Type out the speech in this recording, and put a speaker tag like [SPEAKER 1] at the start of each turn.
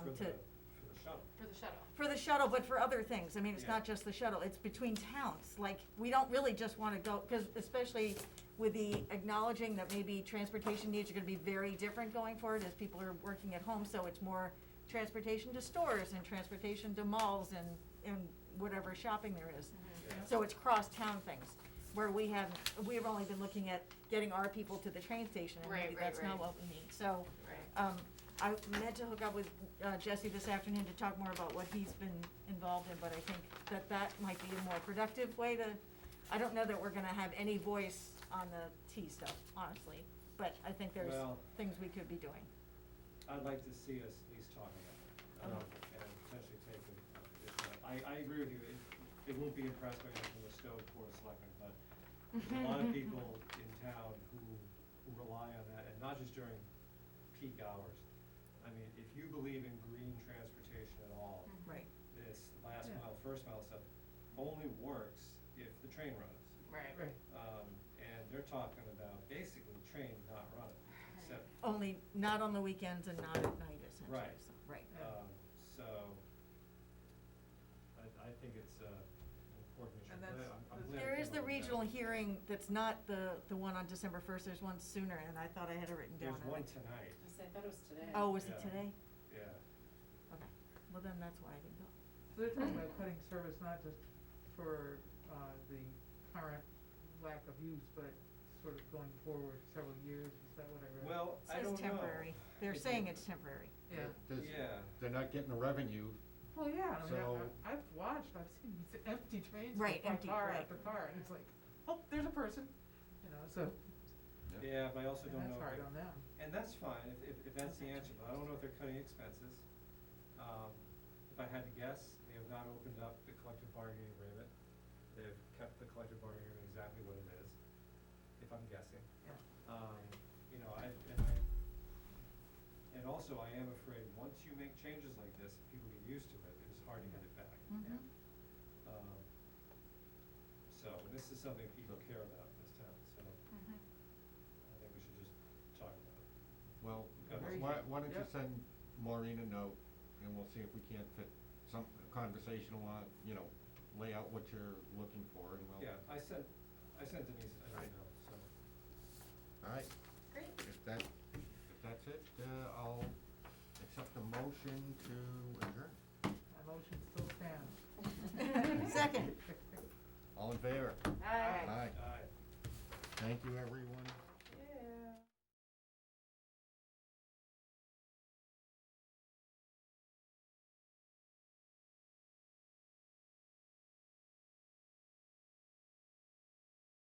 [SPEAKER 1] to,
[SPEAKER 2] For the shuttle.
[SPEAKER 3] For the shuttle.
[SPEAKER 1] for the shuttle, but for other things. I mean, it's
[SPEAKER 2] Yeah.
[SPEAKER 1] not just the shuttle, it's between towns. Like, we don't really just wanna go, cause especially with the acknowledging that maybe transportation needs are gonna be very different going forward as people are working at home, so it's more transportation to stores and transportation to malls and, and whatever shopping there is.
[SPEAKER 3] Mm-hmm.
[SPEAKER 2] Yeah.
[SPEAKER 1] So it's cross-town things, where we have, we've only been looking at getting our people to the train station, and
[SPEAKER 3] Right,
[SPEAKER 1] maybe
[SPEAKER 3] right,
[SPEAKER 1] that's not
[SPEAKER 3] right.
[SPEAKER 1] what we need, so.
[SPEAKER 3] Right.
[SPEAKER 1] Um, I meant to hook up with, uh, Jesse this afternoon to talk more about what he's been involved in, but I think that that might be a more productive way to, I don't know that we're gonna have any voice on the T stuff, honestly, but I think there's
[SPEAKER 2] Well-
[SPEAKER 1] things we could be doing.
[SPEAKER 2] I'd like to see us at least talking about it, um, and potentially take a, a position. I, I agree with you, it, it won't be impressed by anything from the stove board of selectmen, but there's a lot of people in town who, who rely on that, and not just during peak hours. I mean, if you believe in green transportation at all,
[SPEAKER 3] Mhm.
[SPEAKER 1] Right.
[SPEAKER 2] this last
[SPEAKER 4] Yeah.
[SPEAKER 2] mile, first mile stuff only works if the train runs.
[SPEAKER 3] Right.
[SPEAKER 4] Right.
[SPEAKER 2] Um, and they're talking about basically train not running, except
[SPEAKER 1] Only not on the weekends and not at night essentially,
[SPEAKER 2] Right.
[SPEAKER 1] so, right.
[SPEAKER 4] Yeah.
[SPEAKER 2] Um, so, I, I think it's, uh, an important issue.
[SPEAKER 4] And
[SPEAKER 2] I'm glad-
[SPEAKER 4] that's-
[SPEAKER 2] I'm- I'm
[SPEAKER 4] that's-
[SPEAKER 2] glad
[SPEAKER 1] There
[SPEAKER 2] we
[SPEAKER 1] is
[SPEAKER 2] came
[SPEAKER 1] the
[SPEAKER 2] up with that.
[SPEAKER 1] regional hearing that's not the, the one on December first, there's one sooner, and I thought I had it written down.
[SPEAKER 2] There's
[SPEAKER 1] and I-
[SPEAKER 2] one tonight,
[SPEAKER 3] I said, I thought it was today.
[SPEAKER 1] Oh, was it
[SPEAKER 2] Yeah.
[SPEAKER 1] today?
[SPEAKER 2] yeah.
[SPEAKER 1] Okay, well then that's why I didn't go.
[SPEAKER 4] So they're
[SPEAKER 1] Hmm.
[SPEAKER 4] talking about cutting service not just for, uh, the current lack of use, but sort of going forward several years, is that what I read?
[SPEAKER 2] Well,
[SPEAKER 1] It
[SPEAKER 2] I
[SPEAKER 1] says
[SPEAKER 2] don't know.
[SPEAKER 1] temporary, they're
[SPEAKER 2] If
[SPEAKER 1] saying
[SPEAKER 2] you-
[SPEAKER 1] it's temporary.
[SPEAKER 4] Yeah,
[SPEAKER 5] Does-
[SPEAKER 2] Yeah.
[SPEAKER 5] They're not getting the revenue,
[SPEAKER 4] well, yeah, I mean,
[SPEAKER 5] So-
[SPEAKER 4] I- I, I've watched, I've seen these empty trains with
[SPEAKER 1] Right,
[SPEAKER 4] my
[SPEAKER 1] empty,
[SPEAKER 4] car
[SPEAKER 1] right.
[SPEAKER 4] after car, and it's like, oh, there's a person, you know, so,
[SPEAKER 2] Yeah, but I also
[SPEAKER 4] and
[SPEAKER 2] don't know.
[SPEAKER 4] that's
[SPEAKER 2] if
[SPEAKER 4] hard
[SPEAKER 2] they're-
[SPEAKER 4] on them.
[SPEAKER 2] And that's fine, if, if, if that's the
[SPEAKER 1] Okay.
[SPEAKER 2] answer, but I don't know if they're cutting expenses. Um, if I had to guess, they have not opened up the collective bargaining agreement. They've kept the collective bargaining agreement exactly what it is, if I'm guessing.
[SPEAKER 4] Yeah.
[SPEAKER 2] Um, you know, I, and I, and also I am afraid, once you make changes like this, people get used to it, it's hard to get it back.
[SPEAKER 1] Mhm.
[SPEAKER 2] Um, so, this is something people care about in this town, so
[SPEAKER 3] Mhm.
[SPEAKER 2] I think we should just talk about it.
[SPEAKER 5] well,
[SPEAKER 2] Yeah.
[SPEAKER 5] why, why don't you
[SPEAKER 4] Yep.
[SPEAKER 5] send Maureen a note, and we'll see if we can't fit some conversation along, you know, lay out what you're looking for, and we'll.
[SPEAKER 2] Yeah, I sent, I sent Denise an email, so,
[SPEAKER 5] All right,
[SPEAKER 3] Great.
[SPEAKER 5] if that, if that's it, uh, I'll accept a motion to adjourn.
[SPEAKER 4] My motion still stands.
[SPEAKER 1] Second.
[SPEAKER 5] All in favor?
[SPEAKER 3] Aye.
[SPEAKER 5] Aye.
[SPEAKER 2] aye.
[SPEAKER 5] Thank you, everyone.